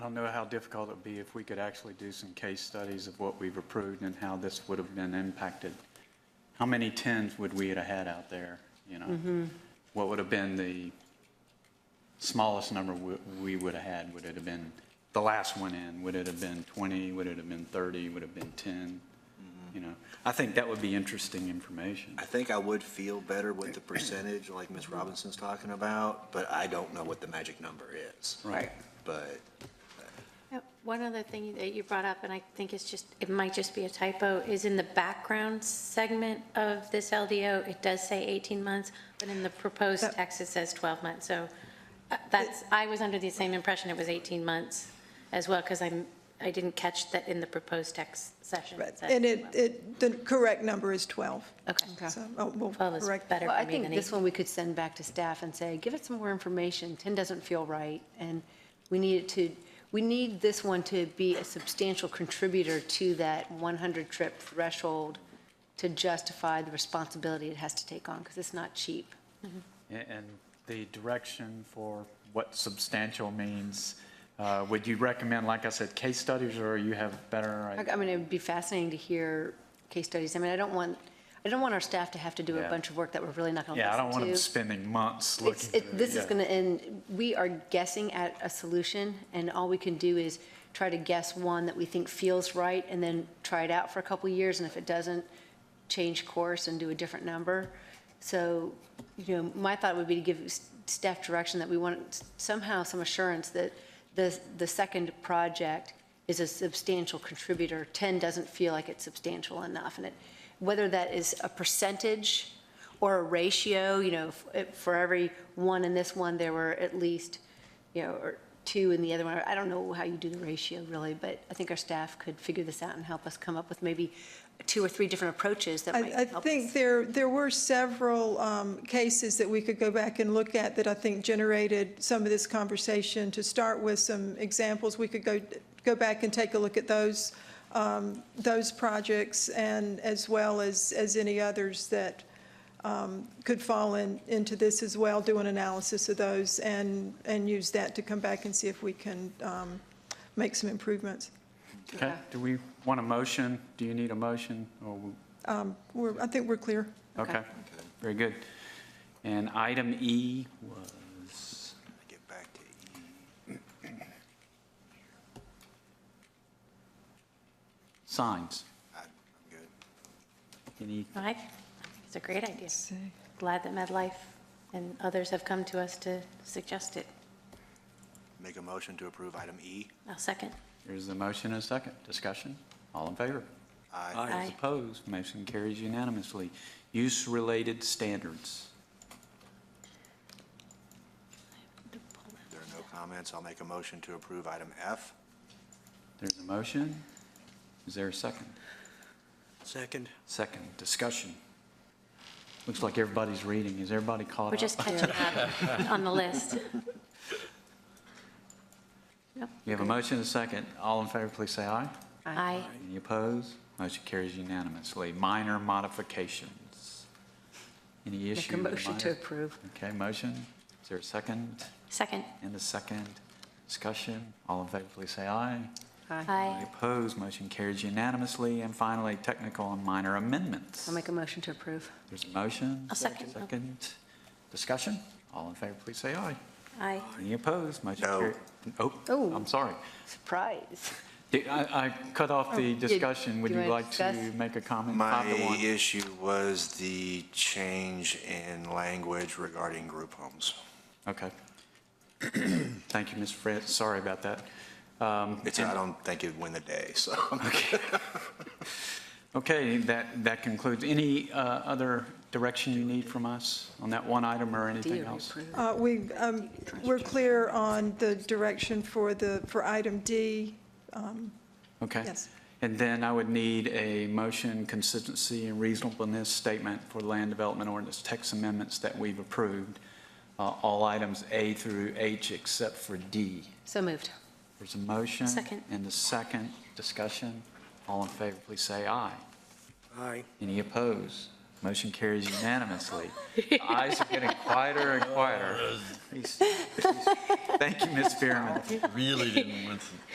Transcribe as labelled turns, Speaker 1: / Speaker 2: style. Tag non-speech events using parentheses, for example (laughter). Speaker 1: I don't know how difficult it would be if we could actually do some case studies of what we've approved and how this would have been impacted. How many tens would we have had out there, you know? What would have been the smallest number we- we would have had? Would it have been the last one in? Would it have been 20? Would it have been 30? Would it have been 10? You know, I think that would be interesting information.
Speaker 2: I think I would feel better with the percentage, like Ms. Robinson's talking about, but I don't know what the magic number is.
Speaker 1: Right.
Speaker 2: But
Speaker 3: Uh, One other thing that you brought up, and I think it's just, it might just be a typo, is in the background segment of this LDO, it does say 18 months, but in the proposed
Speaker 4: That-
Speaker 3: text, it says 12 months. So uh, that's, I was under the same impression it was 18 months as well, because I'm, I didn't catch that in the proposed text session. it said
Speaker 4: And it,
Speaker 3: 12.
Speaker 4: it, the correct number is 12.
Speaker 3: Okay.
Speaker 4: So, oh, we'll
Speaker 3: 12 is
Speaker 4: correct.
Speaker 3: better
Speaker 5: Well,
Speaker 3: for
Speaker 5: I
Speaker 3: me
Speaker 5: think
Speaker 3: than
Speaker 5: this
Speaker 3: 18.
Speaker 5: one we could send back to staff and say, give it some more information. 10 doesn't feel right, and we need it to, we need this one to be a substantial contributor to that 100-trip threshold to justify the responsibility it has to take on, because it's not cheap.
Speaker 6: And and the direction for what substantial means, uh, would you recommend, like I said, case studies, or you have better?
Speaker 5: I I mean, it would be fascinating to hear case studies. I mean, I don't want, I don't want our staff to have to do a
Speaker 6: Yeah.
Speaker 5: bunch of work that we're really not going to listen
Speaker 6: Yeah,
Speaker 5: to.
Speaker 6: I don't want them spending months looking.
Speaker 5: It's,
Speaker 6: through
Speaker 5: it, this is
Speaker 6: yeah.
Speaker 5: gonna end, we are guessing at a solution, and all we can do is try to guess one that we think feels right, and then try it out for a couple of years, and if it doesn't, change course and do a different number. So, you know, my thought would be to give s- staff direction that we want somehow some assurance that the, the second project is a substantial contributor. 10 doesn't feel like it's substantial enough, and it, whether that is a percentage or a ratio, you know, f- it- for every one in this one, there were at least, you know, or two in the other one. I don't know how you do the ratio really, but I think our staff could figure this out and help us come up with maybe two or three different approaches that might
Speaker 4: I, I
Speaker 5: help
Speaker 4: think
Speaker 5: us.
Speaker 4: there, there were several um, cases that we could go back and look at that I think generated some of this conversation. To start with some examples, we could go, go back and take a look at those, um, those projects and as well as, as any others that um, could fall in, into this as well, do an analysis of those and, and use that to come back and see if we can um, make some improvements.
Speaker 1: Okay, do we want a motion? Do you need a motion? Or, we-
Speaker 4: We're, I think we're clear.
Speaker 1: okay, very good. And item E was,
Speaker 2: let me get back to E.
Speaker 1: signs.
Speaker 2: I- I'm good.
Speaker 1: Any
Speaker 3: No, I- It's a great idea. Glad that MedLife and others have come to us to suggest it.
Speaker 2: Make a motion to approve item E.
Speaker 3: I'll second.
Speaker 1: There's the motion and a second. Discussion? All in favor?
Speaker 2: Aye.
Speaker 1: Those
Speaker 3: Aye.
Speaker 1: Opposed? Motion carries unanimously. Use-related standards.
Speaker 2: There are no comments. I'll make a motion to approve item F.
Speaker 1: There's a motion. Is there a second?
Speaker 2: Second.
Speaker 1: Second, discussion. Looks like everybody's reading. Is everybody caught up?
Speaker 3: We're just catching up on the
Speaker 4: (laughs)
Speaker 3: list.
Speaker 1: You have a motion and a second. All in favor, please say aye.
Speaker 3: Aye.
Speaker 1: Any opposed? Motion carries unanimously. Minor modifications. Any
Speaker 5: Make
Speaker 1: issue?
Speaker 5: a
Speaker 1: with the
Speaker 5: motion to
Speaker 1: minor-
Speaker 5: approve.
Speaker 1: Okay, motion. Is there a second?
Speaker 3: Second.
Speaker 1: And a second. Discussion. All in favor, please say aye. Any
Speaker 3: Aye.
Speaker 1: opposed? Motion carries unanimously. And finally, technical and minor amendments.
Speaker 5: I'll make a motion to approve.
Speaker 1: There's a motion.
Speaker 3: I'll second.
Speaker 1: Second. Discussion. All in favor, please say aye.
Speaker 3: Aye.
Speaker 1: Any opposed? Motion
Speaker 2: No.
Speaker 1: carries. Oh,
Speaker 5: Oh.
Speaker 1: I'm sorry.
Speaker 5: Surprise.
Speaker 1: Did- I I cut off the discussion. Would
Speaker 5: do Oh, you
Speaker 1: you
Speaker 5: wanna
Speaker 1: like to
Speaker 5: discuss?
Speaker 1: make a comment?
Speaker 2: My
Speaker 1: Five to one.
Speaker 2: issue was the change in language regarding group homes.
Speaker 1: Okay. (clears throat) Thank you, Ms. Fritz. Sorry about that. Um,
Speaker 2: It's, I don't think it'd win the day, so.
Speaker 1: Okay, that, that concludes. Any uh, other direction you need from us on that one item or anything
Speaker 5: Dear,
Speaker 1: else?
Speaker 5: approve.
Speaker 4: Uh, We, um, we're clear on the direction for the, for item D. um,
Speaker 1: Okay.
Speaker 4: Yes.
Speaker 1: And then I would need a motion consistency and reasonableness statement for land development ordinance text amendments that we've approved, uh, all items A through H except for D.
Speaker 5: So moved.
Speaker 1: There's a motion.
Speaker 3: Second.
Speaker 1: And a second discussion. All in favor, please say aye.
Speaker 2: Aye.
Speaker 1: Any opposed? Motion carries unanimously. The Eyes are getting quieter and quieter. Thank you, Ms. Spearman.
Speaker 7: Really didn't want to.